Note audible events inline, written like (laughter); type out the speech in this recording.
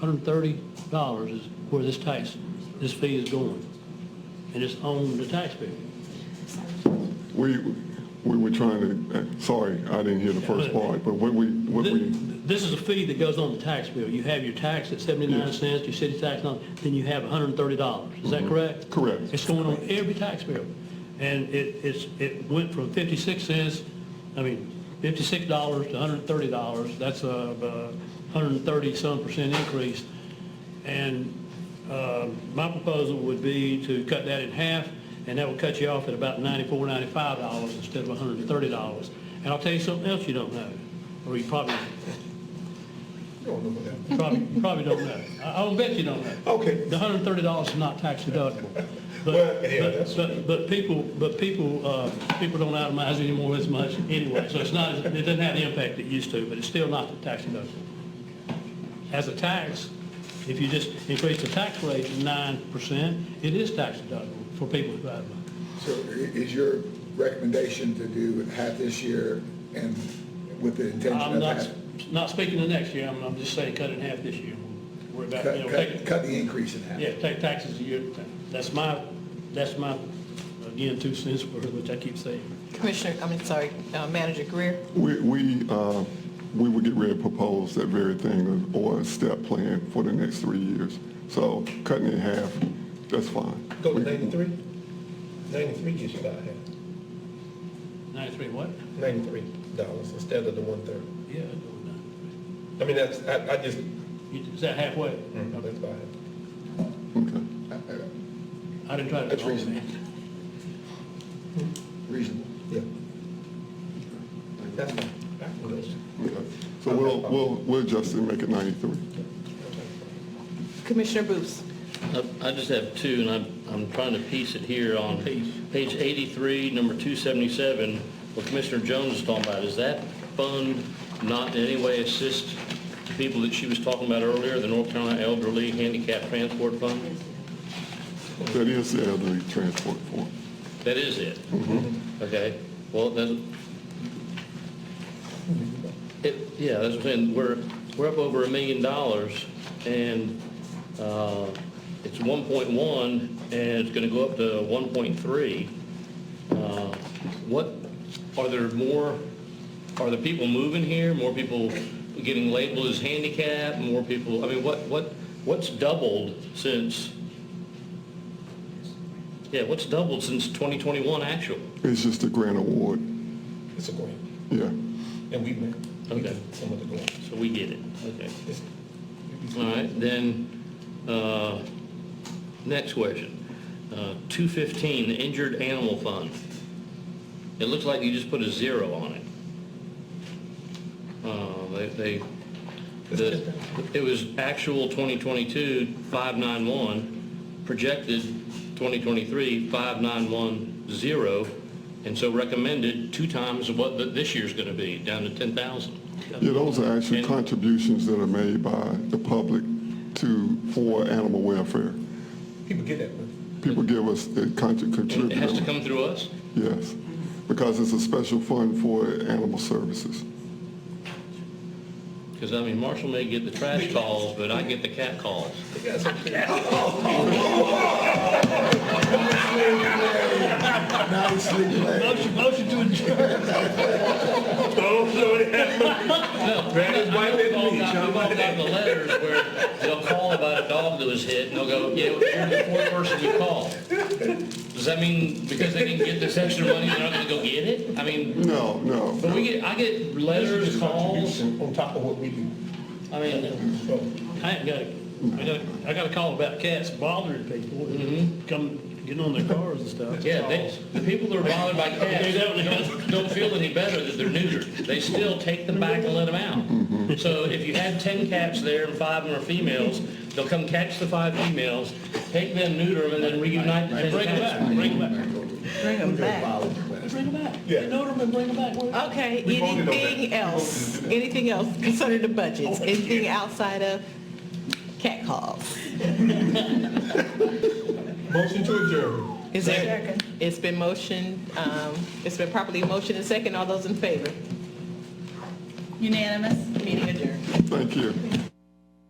$130 is where this tax, this fee is going, and it's on the taxpayer. We, we were trying to, uh, sorry, I didn't hear the first part, but what we, what Th- we, This is a fee that goes on the tax bill. You have your tax at 79 cents, your city tax, and all, then you have $130. Is that correct? Correct. It's going on every tax bill. And it, it's, it went from 56 cents, I mean, $56 to $130. That's a 130-some percent increase. And uh, my proposal would be to cut that in half, and that would cut you off at about $94, $95 instead of $130. And I'll tell you something else you don't know, or you probably, probably, probably don't know. I- I'll bet you don't know. Okay. The $130 is not tax deductible. Well, But, yeah, that's- but- but, but people, but people, uh, people don't itemize anymore as much anyway, so it's not, it doesn't have the impact it used to, but it's still not the tax deductible. As a tax, if you just increase the tax rate to 9%, it is tax deductible for people who have money. So i- is your recommendation to do half this year and with the intention I'm of not, half? not speaking to next year, I'm, I'm just saying cut it in half this year. Worry about, you know, Cut, cut, take, cut the increase in half? yeah, take taxes a year at a time. That's my, that's my, again, two cents (laughs) worth, which I keep saying. Commissioner, I mean, sorry, uh, Manager Greer, we, we, uh, we would get ready to propose that very thing or a step plan for the next three years. So cutting it in half, that's fine. Go to 93? 93 gets you about half, 93 what? 93 dollars instead of the 130. Yeah, I'd go with 93. I mean, that's, I, I just, mm, You- Is that halfway? that's about half. Okay. I didn't try to. That's reasonable. Reasonable. Yeah. That's fine. Okay. So we'll, we'll, we'll adjust it and make it 93. Commissioner Booth, I- I just have two, and I'm, I'm trying to piece it here on page 83, number 277, what Commissioner Jones is talking about. Is that fund not in any way assist the people that she was talking about earlier, the North Carolina Elderly Handicap Transport Fund? That is the elderly transport form. That is it? Okay, well, then, it, yeah, that's what I'm saying, we're, we're up over a million dollars, and, uh, it's one point one, and it's gonna go up to one point three. Uh, What, are there more, are the people moving here, more people getting labeled as handicapped, more people, I mean, what, what, what's doubled since, yeah, what's doubled since 2021 actual? It's just a grant award, It's a grant, yeah. and we met, we Okay. did some of the grants. So we get it, okay. It's- All right, then, uh, next question. Uh, 215, the Injured Animal Fund. It looks like you just put a zero on it. Uh, They, they- the- it was actual 2022, 591, projected 2023, 5910, and so recommended two times what the- this year's going to be, down to 10,000. Yeah, those are actually And- contributions that are made by the public to, for animal welfare. People get that money. People give us, they contri- It contribute. has to them. come through us? Yes, because it's a special fund for animal services. Because, I mean, Marshall may get the trash calls, but I get the cat calls. They got some- (laughs) Nicely played. Motion, motion to adjourn. (laughs) No, Brandon's I- I wife know didn't we've all mean got- John. we've all got the letters where they'll call about a dog that was hit, and they'll go, yeah, well, you're the fourth person you called. Does that mean because they didn't get this extra money, they're not going to go get it? I mean, No, no. but we get, I get letters, It's calls, contribution On top of what we do. I mean, So, I ain't got, a- I got, a- I got a call about cats bothering people, Mm-hmm. and come, getting on their cars and stuff. yeah, they, the people that are bothered by cats don't- don't feel any better that they're neutered. They still take them back and let them out. So if you had 10 cats there and five of them are females, they'll come catch the five females, take them, neuter them, and then reunite the Bring 10 them cats. back, bring them back. bring them back. Bring them back. Yeah. They know them and bring them back. Okay, We voted on that. anything else, anything else concerning the (laughs) budgets, anything outside of cat calls? Motion to adjourn. Is there, it's been motioned, um, it's been properly motioned and second, all those in favor? Unanimous? Meeting adjourned. Thank you.